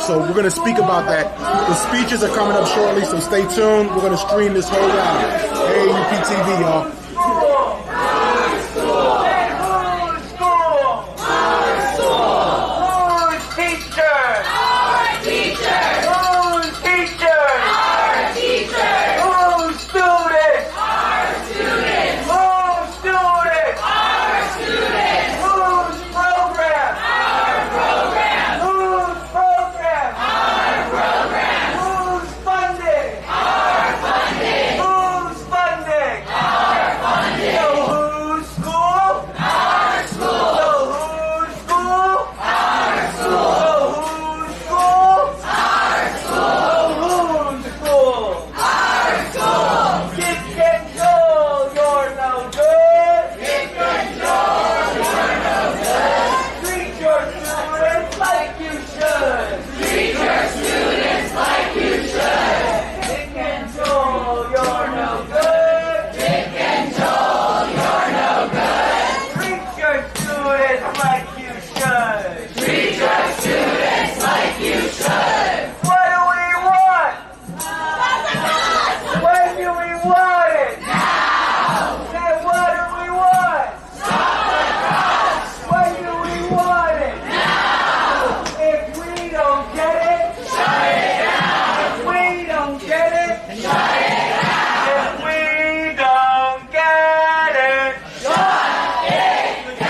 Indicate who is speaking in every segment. Speaker 1: So we're going to speak about that. The speeches are coming up shortly, so stay tuned. We're going to stream this whole round. AUPTV, y'all.
Speaker 2: Hard school! Hard teacher! Hard teacher! Hard student! Hard student! Whose program? Whose program? Whose funding? Whose funding? So whose school? The who's school? Our school. The who's school? Our school. The who's school? Our school. Kick and roll, you're no good. Kick and roll, you're no good. Treat your students like you should. Treat your students like you should. Kick and roll, you're no good. Treat your students like you should. Treat your students like you should. What do we want? When do we want it? Now. Then what do we want? Stop When do we want it? Now. If we don't get it, shut it down. If we don't get it, shut it down. If we don't get it. If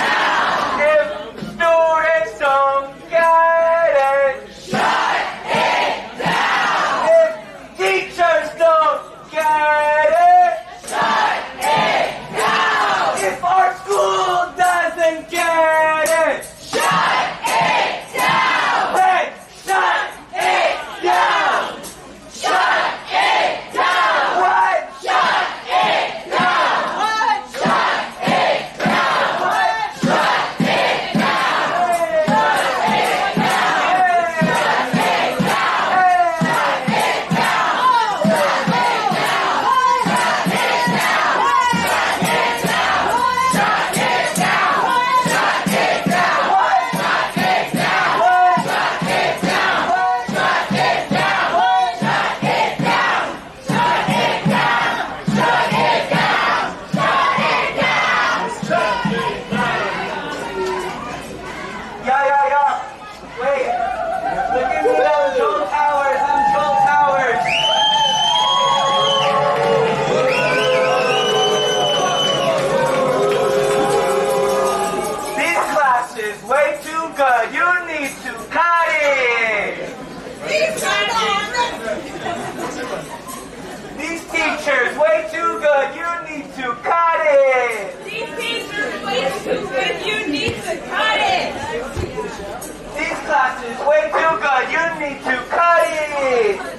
Speaker 2: students don't get it, shut it down. If teachers don't get it, shut it down. If our school doesn't get it, shut it down. Then shut it down. Shut it down. What? Shut it down. What? What? Yeah, yeah, yeah. Wait. Look at me now, Joel Towers. I'm Joel Towers. This class is way too good. You need to cut it.
Speaker 3: He's not on
Speaker 2: These teachers way too good. You need to cut it.
Speaker 3: These teachers way too good. You need to cut it.
Speaker 2: These classes way too good. You need to cut it.
Speaker 3: oh,